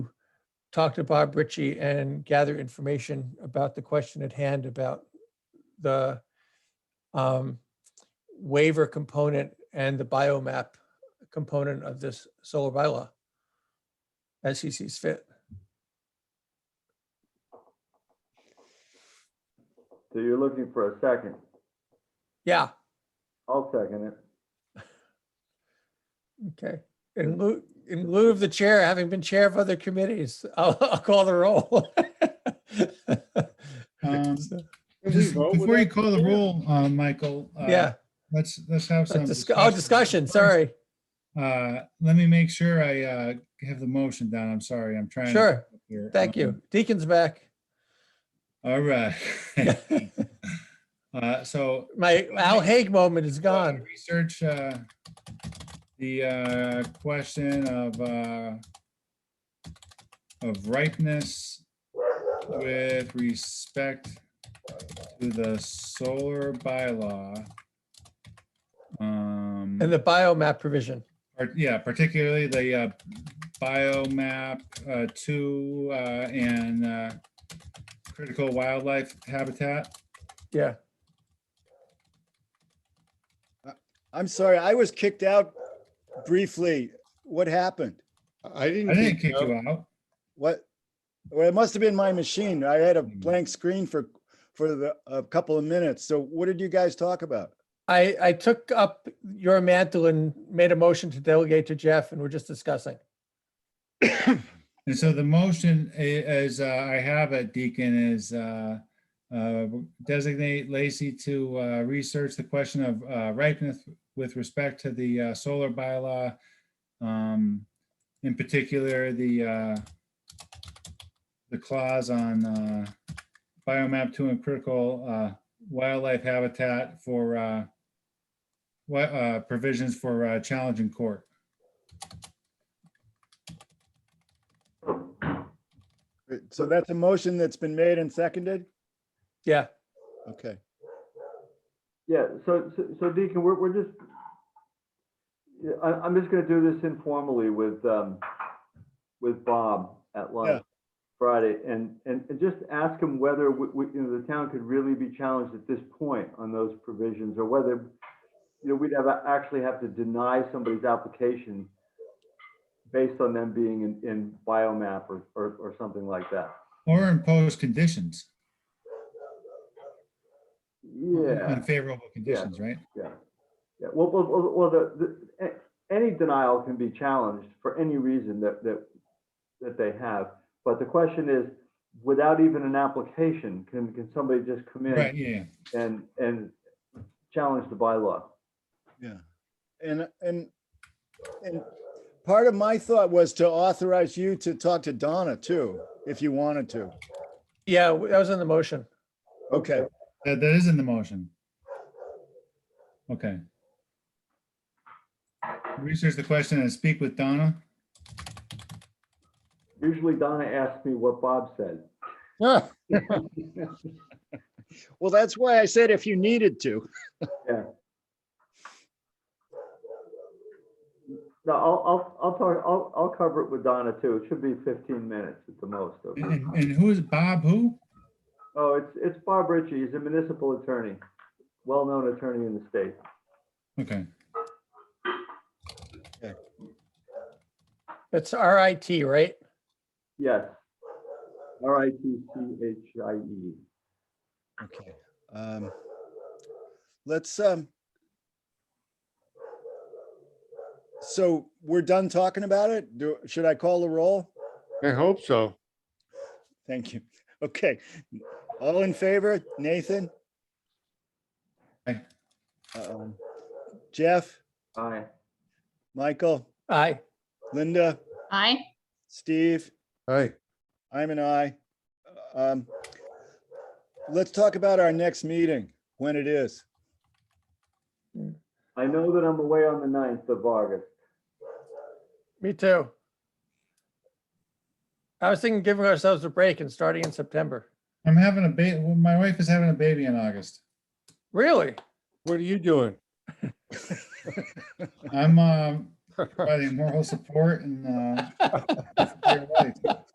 talk to Bob Ritchie and gather information about the question at hand about the um, waiver component and the biomap component of this solar bylaw as he sees fit. So you're looking for a second. Yeah, I'll second it. okay. In lieu, in lieu of the chair, having been chair of other committees, I'll, I'll call the roll. Um, So, Can we Just vote with before you that? call the roll, uh, Michael. uh, Yeah, Let's, let's have a some. discu- oh, discussion, sorry, Uh, let me make sure I, uh, have the motion down. I'm sorry, I'm trying. to Sure. keep up here. thank Um, you. Deacon's back. All right. Uh, so. My Al Haig moment is gone. Research, uh, the, uh, question of, uh, of ripeness with respect to the solar bylaw. Um. And the biomap provision. Or, yeah, particularly the uh, biomap uh, two uh, and uh, critical wildlife habitat. Yeah, I'm sorry, I was kicked out briefly. What happened? I I didn't. didn't think kick so. you out. What? Well, it must have been my machine. I had a blank screen for, for the, a couple of minutes. So what did you guys talk about? I, I took up your mantle and made a motion to delegate to Jeff and we're just discussing. And so the motion i- as uh, I have it, Deacon, is uh, uh, designate Lacy to uh, research the question of uh, ripeness with respect to the uh, solar bylaw. um, In particular, the uh, the clause on uh, biomap two and critical uh, wildlife habitat for uh, wi- uh, provisions for uh, challenge in court. Uh, So that's a motion that's been made and seconded? Yeah, Okay. Yeah, so, so- so Deacon, we're, we're just, Yeah, I, I'm just gonna do this informally with, um, with Bob at Yeah. lunch Friday, and, and, and just ask him whether we, we, you know, the town could really be challenged at this point on those provisions, or whether, you know, we'd have, actually have to deny somebody's application based on them being in, in biomap or, or, or something like that. Or impose conditions. Yeah. unfavorable conditions, right? Yeah, yeah, well, well, well, well, the, the, a- any denial can be challenged for any reason that, that, that they have. But the question is, without even an application, can, can somebody just come Right, in yeah. and, and challenge the bylaw? Yeah. And, and, and part of my thought was to authorize you to talk to Donna too, if you wanted to. yeah, w- that was in the motion. Okay, That, that is in the motion. Okay. Research the question and speak with Donna. Usually Donna asks me what Bob said. Yeah. Well, that's why I said if you needed to. No, I'll, I'll, I'll talk, I'll, I'll cover it with Donna too. It should be fifteen minutes at the most. okay? And, and who is Bob? Who? Oh, it's, it's Bob Ritchie. He's a municipal attorney, well-known attorney in the state. Okay. It's RIT, right? Yes. R I T C H I E. Okay. um, Let's, um. So we're done talking about it? Do, should I call the roll? I hope so. Thank you. Okay. All in favor? Nathan? Aye. Uh-oh. Jeff, Aye. Michael, Aye, Linda, Aye. Steve? Hi. I'm an I. Um, Let's talk about our next meeting, when it is. I know that I'm away on the 9th of August. me too. I was thinking giving ourselves a break and starting in September. I'm having a ba, well, my wife is having a baby in August. Really? What are you doing? I'm, um, providing moral support and, uh, for her life.